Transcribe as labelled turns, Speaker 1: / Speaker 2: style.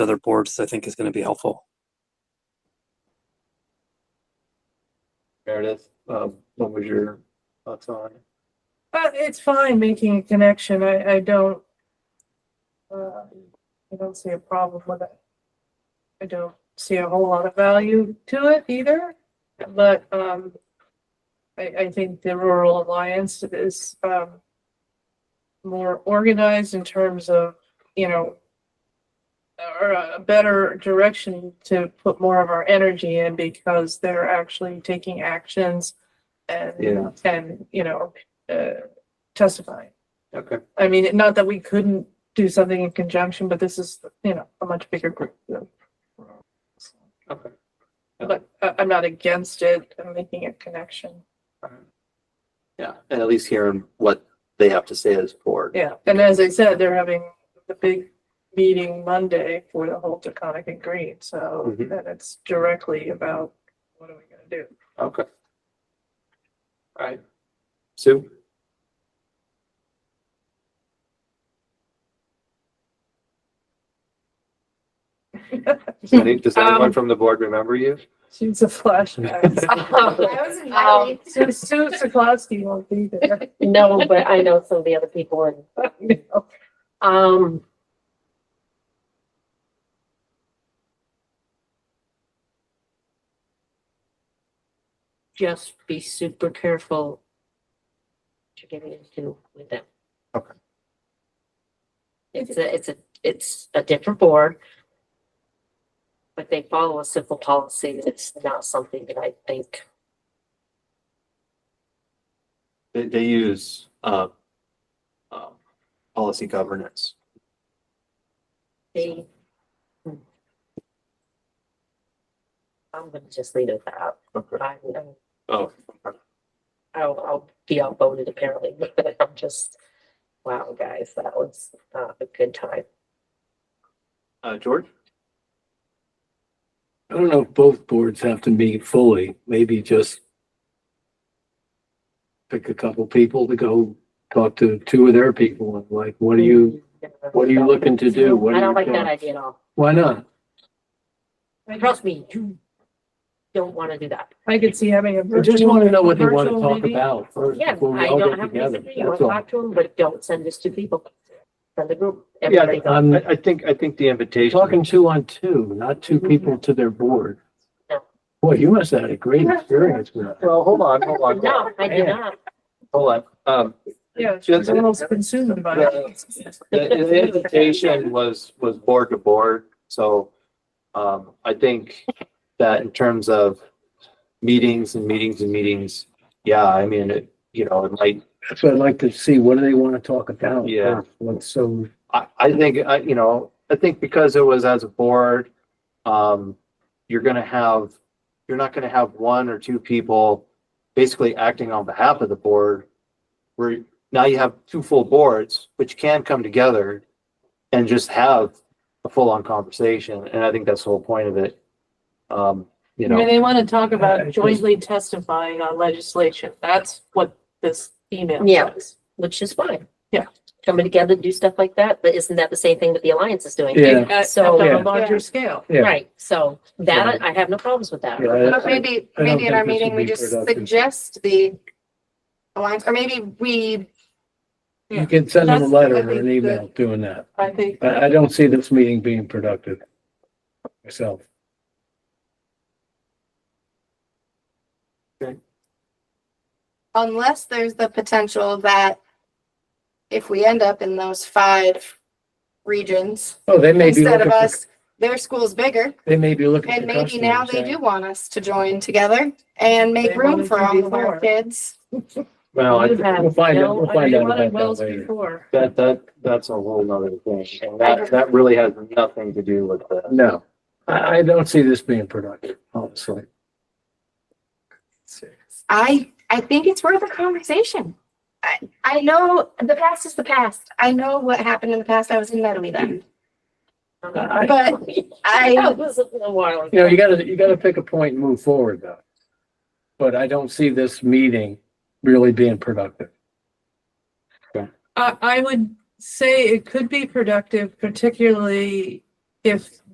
Speaker 1: other boards, I think is going to be helpful.
Speaker 2: Meredith, um, what was your thoughts on? it?
Speaker 3: Uh, it's fine making a connection. I, I don't. Uh, I don't see a problem with it. I don't see a whole lot of value to it either, but, um. I, I think the Rural Alliance is, um. More organized in terms of, you know. Or a better direction to put more of our energy in because they're actually taking actions.
Speaker 2: Yeah.
Speaker 3: And, and, you know, uh, testifying.
Speaker 2: Okay,
Speaker 3: I mean, not that we couldn't do something in conjunction, but this is, you know, a much bigger group. so.
Speaker 2: okay.
Speaker 3: But I, I'm not against it, I'm making a connection.
Speaker 2: Yeah, and at least hearing what they have to say as board.
Speaker 3: Yeah, and as I said, they're having the big meeting Monday for the whole Taconic and Green, so
Speaker 4: Mm-hmm.
Speaker 2: Mhm.
Speaker 3: then it's directly about what are we gonna do?
Speaker 2: Okay. All right. Sue? Does any, does anyone
Speaker 3: Um,
Speaker 2: from the board remember you?
Speaker 3: She's a flashback.
Speaker 5: I was
Speaker 6: Um,
Speaker 5: invited.
Speaker 3: Sue Sue Sokolowski won't be there.
Speaker 6: No, but I know some of the other people and, um. Just be super careful. what You're getting into with them.
Speaker 2: Okay.
Speaker 6: It's a, it's a, it's a different board. But they follow a simple policy and it's not something that I think,
Speaker 2: They, they use, uh, um, policy governance.
Speaker 6: they. I'm gonna just leave it at that.
Speaker 2: Okay.
Speaker 6: I, I'm-
Speaker 2: Oh,
Speaker 6: I'll, I'll be outvoted apparently, but I'm just, wow, guys, that was not a good time.
Speaker 2: uh, George?
Speaker 4: I don't know if both boards have to meet fully, maybe just pick a couple people to go talk to two of their people and like, what are you, what are you looking to do? What
Speaker 6: I
Speaker 4: are
Speaker 6: don't
Speaker 4: you
Speaker 6: like that
Speaker 4: doing?
Speaker 6: idea at all.
Speaker 4: Why not?
Speaker 6: Trust me, you don't want to do that.
Speaker 3: I could see having a
Speaker 4: I
Speaker 3: virtual.
Speaker 4: just want to know what they want to
Speaker 3: virtual
Speaker 4: talk
Speaker 3: meeting.
Speaker 4: about first
Speaker 6: Yeah,
Speaker 4: before we
Speaker 6: I
Speaker 4: all
Speaker 6: don't
Speaker 4: get
Speaker 6: have
Speaker 4: together.
Speaker 6: anything, you want
Speaker 4: That's
Speaker 6: to
Speaker 4: all.
Speaker 6: talk to them, but don't send this to people. Send the group.
Speaker 4: Yeah,
Speaker 6: everybody.
Speaker 4: I'm
Speaker 2: I think, I think the invitation.
Speaker 4: talking two on two,
Speaker 6: Mm-hmm.
Speaker 4: not two people to their board.
Speaker 6: No.
Speaker 4: Boy, you must have had a great experience with that.
Speaker 2: Well, hold on, hold on, hold on,
Speaker 6: No, I do
Speaker 4: Yeah.
Speaker 6: not.
Speaker 2: hold on. Um,
Speaker 3: Yeah,
Speaker 2: Just-
Speaker 3: she's almost consumed by it.
Speaker 2: The, the invitation was, was board to board, so, um, I think that in terms of meetings and meetings and meetings, yeah, I mean, it, you know, it might,
Speaker 4: That's what I'd like to see. What do they want to talk about?
Speaker 2: Yeah.
Speaker 4: first? What's so,
Speaker 2: I, I think, I, you know, I think because it was as a board, um, you're gonna have, you're not gonna have one or two people basically acting on behalf of the board. Where now you have two full boards, which can come together and just have a full-on conversation, and I think that's the whole point of it. Um, you
Speaker 3: I mean,
Speaker 2: know,
Speaker 3: they want to talk
Speaker 4: I- I
Speaker 3: about
Speaker 4: just-
Speaker 3: jointly testifying on legislation. That's what this email
Speaker 6: Yeah.
Speaker 3: says.
Speaker 6: which is fine.
Speaker 3: Yeah.
Speaker 6: Coming together, do stuff like that, but isn't that the same thing that the Alliance is doing?
Speaker 4: Yeah.
Speaker 3: At- at
Speaker 6: So-
Speaker 3: on
Speaker 4: Yeah.
Speaker 3: a larger scale.
Speaker 4: yeah.
Speaker 6: Right, so that, I I have no problems with that.
Speaker 4: Yeah, I-
Speaker 5: But maybe,
Speaker 4: I don't
Speaker 5: maybe in
Speaker 4: think
Speaker 5: our
Speaker 4: this would
Speaker 5: meeting, we
Speaker 4: be
Speaker 5: just
Speaker 4: productive.
Speaker 5: suggest the alliance, or maybe we,
Speaker 3: Yeah.
Speaker 4: You can send them a
Speaker 3: That's-
Speaker 4: letter
Speaker 3: I
Speaker 4: or an
Speaker 3: think
Speaker 4: email doing that.
Speaker 3: I think.
Speaker 4: I, I don't see this meeting being productive myself.
Speaker 5: unless there's the potential that if we end up in those five regions,
Speaker 4: Oh, they may be
Speaker 5: instead
Speaker 4: looking
Speaker 5: of
Speaker 4: for,
Speaker 5: us, their school's bigger,
Speaker 4: they may be looking
Speaker 5: and
Speaker 4: for
Speaker 5: maybe now
Speaker 4: customers.
Speaker 5: they
Speaker 4: yeah.
Speaker 5: do want us to join together and
Speaker 3: They
Speaker 5: make room
Speaker 3: wanted
Speaker 5: for
Speaker 3: to
Speaker 5: all of
Speaker 3: before.
Speaker 5: our kids.
Speaker 2: well, I
Speaker 6: You
Speaker 2: think
Speaker 6: have
Speaker 4: We'll find out,
Speaker 6: no,
Speaker 4: we'll
Speaker 3: I
Speaker 4: find
Speaker 3: mean,
Speaker 4: out
Speaker 3: what it
Speaker 4: about that
Speaker 3: Wells
Speaker 4: later.
Speaker 3: before.
Speaker 2: that, that, that's a whole nother thing, and that, that really has nothing to do with the.
Speaker 4: No, I, I don't see this being productive, honestly.
Speaker 5: I, I think it's worth a conversation. I, I know the past is the past. I know what happened in the past. I was in Medley then.
Speaker 4: I-
Speaker 5: But I,
Speaker 6: That was a little while.
Speaker 4: You know, you gotta, you gotta pick a point and move forward though. But I don't see this meeting really being productive.
Speaker 3: I, I would say it could be productive, particularly if